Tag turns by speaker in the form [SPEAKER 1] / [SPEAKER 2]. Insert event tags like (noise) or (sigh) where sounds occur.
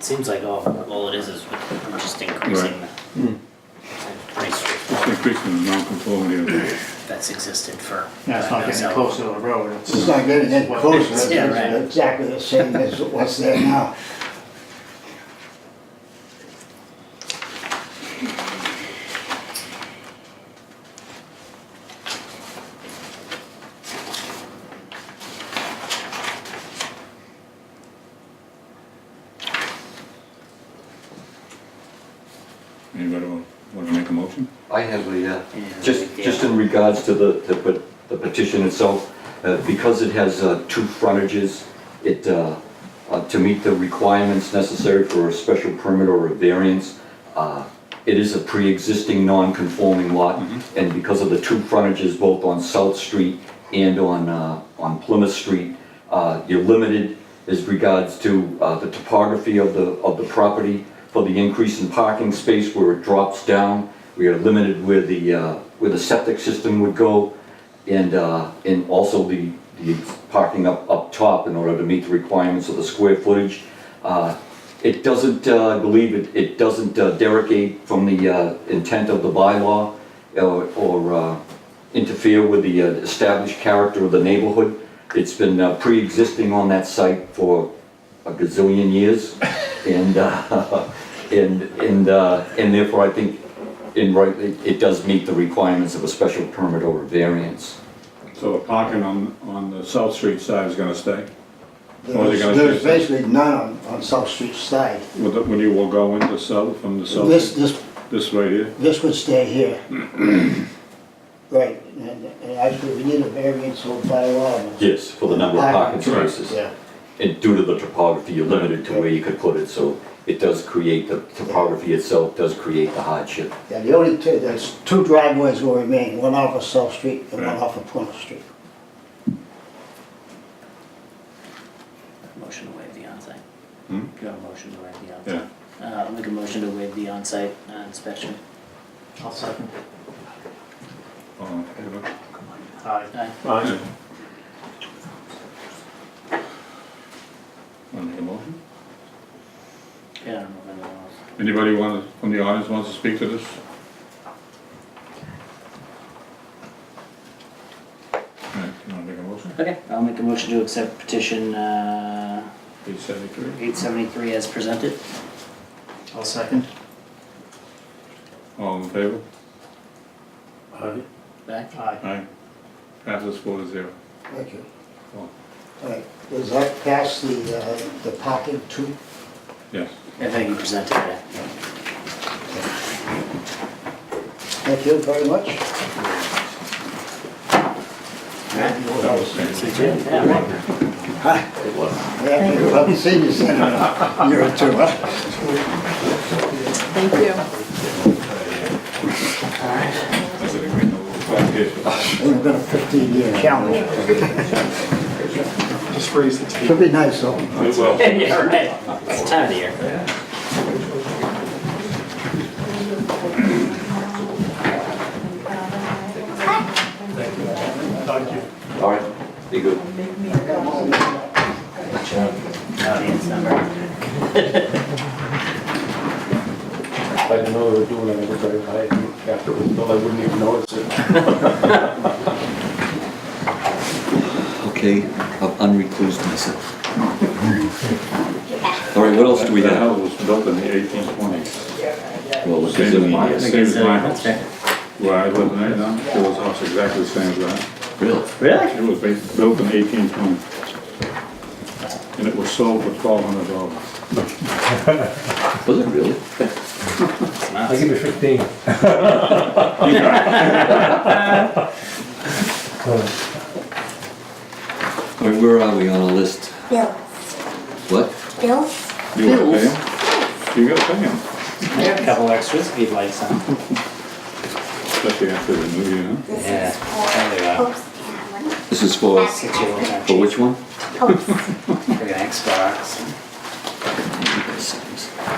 [SPEAKER 1] Seems like all, all it is is we're just increasing the price
[SPEAKER 2] Just increasing the non-conformity of the,
[SPEAKER 1] that's existed for. uh,
[SPEAKER 3] Yeah, it's not getting
[SPEAKER 1] So-
[SPEAKER 3] closer to the road, it's.
[SPEAKER 4] It's not getting any
[SPEAKER 3] What-
[SPEAKER 4] closer,
[SPEAKER 1] it's-
[SPEAKER 4] it's
[SPEAKER 1] yeah, right.
[SPEAKER 4] exactly the same as what's
[SPEAKER 2] (laughs)
[SPEAKER 4] there now.
[SPEAKER 2] anybody want, want to make a motion?
[SPEAKER 5] I have a, uh,
[SPEAKER 1] Yeah,
[SPEAKER 5] just,
[SPEAKER 1] yeah.
[SPEAKER 5] just in regards to the, the pe- the petition itself, uh, because it has uh, two frontages, it, uh, uh, to meet the requirements necessary for a special permit or a variance, uh, it is a pre-existing non-conforming lot, and because of the two frontages, both on South Street and on, uh, on Plymouth Street, uh, you're limited as regards to uh, the topography of the, of the property, for the increase in parking space where it drops down. We are limited where the, uh, where the septic system would go and, uh, and also the, the parking up, up top in order to meet the requirements of the square footage. Uh, It doesn't, uh, I believe it, it doesn't uh, derogate from the uh, intent of the bylaw or, or uh, interfere with the uh, established character of the neighborhood. It's been uh, pre-existing on that site for a gazillion years. And, uh, (laughs) and, and, uh, and therefore I think in right, it, it does meet the requirements of a special permit or a variance.
[SPEAKER 2] So the parking on, on the South Street side is gonna stay? Or they're
[SPEAKER 4] There's
[SPEAKER 2] gonna
[SPEAKER 4] there's
[SPEAKER 2] do it.
[SPEAKER 4] basically none on, on South Street side.
[SPEAKER 2] With the- When you will go into South, from the South,
[SPEAKER 4] This, this,
[SPEAKER 2] this right here?
[SPEAKER 4] this would stay
[SPEAKER 2] (clears throat)
[SPEAKER 4] here. Right, and, and actually, we need a variance or bylaw.
[SPEAKER 5] Yes, for the number of parking spaces.
[SPEAKER 4] Yeah,
[SPEAKER 5] And due to the topography, you're limited to where you could put it, so it does create, the topography itself does create the hardship.
[SPEAKER 4] yeah, the only two, there's two driveways will remain, one off of South Street and one
[SPEAKER 2] Right.
[SPEAKER 4] off of Plymouth Street.
[SPEAKER 1] Motion to waive the onsite.
[SPEAKER 2] Hmm?
[SPEAKER 1] Do you want a motion to waive the
[SPEAKER 2] Yeah.
[SPEAKER 1] onsite? Uh, I'll make a motion to waive the onsite uh, inspection.
[SPEAKER 3] I'll second.
[SPEAKER 2] All in favor?
[SPEAKER 3] Aye.
[SPEAKER 1] Aye.
[SPEAKER 2] Aye. Want to make a motion?
[SPEAKER 1] Yeah, I don't know if anyone else.
[SPEAKER 2] Anybody want, from the audience wants to speak to this? Alright, you wanna make a motion?
[SPEAKER 1] Okay, I'll make a motion to accept petition, uh,
[SPEAKER 2] Eight seventy-three?
[SPEAKER 1] eight seventy-three as presented.
[SPEAKER 3] I'll second.
[SPEAKER 2] All in favor?
[SPEAKER 3] Aye.
[SPEAKER 1] Back.
[SPEAKER 3] Aye.
[SPEAKER 2] Aye. Passes four to zero.
[SPEAKER 4] Thank you.
[SPEAKER 2] Oh.
[SPEAKER 4] All right, does that pass the, uh, the parking too?
[SPEAKER 2] Yes.
[SPEAKER 1] Everything you presented, yeah.
[SPEAKER 4] Thank you very much.
[SPEAKER 2] That was fancy.
[SPEAKER 1] Yeah, right. (laughs)
[SPEAKER 5] It was.
[SPEAKER 4] Yeah, you have the senior (laughs) center in a year or two, huh?
[SPEAKER 6] Thank you.
[SPEAKER 2] That's a great little application.
[SPEAKER 4] Only been a fifteen-year calendar.
[SPEAKER 7] Just raise the
[SPEAKER 4] Should
[SPEAKER 7] table.
[SPEAKER 4] be nice, though.
[SPEAKER 2] It will.
[SPEAKER 1] Yeah, right. It's the time of the year.
[SPEAKER 7] Thank you.
[SPEAKER 5] All right, be good.
[SPEAKER 1] Audience number.
[SPEAKER 7] I didn't know they were doing it, I was very high after, it was built, I wouldn't even notice it.
[SPEAKER 5] Okay, I've unreclused myself. All right, what else do we
[SPEAKER 2] That
[SPEAKER 5] have?
[SPEAKER 2] house was built in the eighteen twenties.
[SPEAKER 5] Well, it's
[SPEAKER 2] Same as mine,
[SPEAKER 5] gazillion
[SPEAKER 2] same as my house.
[SPEAKER 1] That's fair.
[SPEAKER 2] Where I live right now, it was almost exactly the same as that.
[SPEAKER 5] Really?
[SPEAKER 1] Really?
[SPEAKER 2] It was ba- built in eighteen twenty. And it was sold for twelve hundred dollars.
[SPEAKER 5] Was it really?
[SPEAKER 8] I'll give it 15.
[SPEAKER 5] All right, where are we on our list?
[SPEAKER 9] Bill,
[SPEAKER 5] What?
[SPEAKER 9] Bill,
[SPEAKER 2] You gotta pay him? You gotta pay him,
[SPEAKER 1] I got a couple extras if you'd like some.
[SPEAKER 2] especially after the new year, huh?
[SPEAKER 9] this
[SPEAKER 1] Yeah,
[SPEAKER 9] is for
[SPEAKER 1] there we go.
[SPEAKER 9] Pope's family.
[SPEAKER 5] This is for,
[SPEAKER 1] Six year old.
[SPEAKER 5] for which one?
[SPEAKER 9] Pope's.
[SPEAKER 1] Like an Xbox.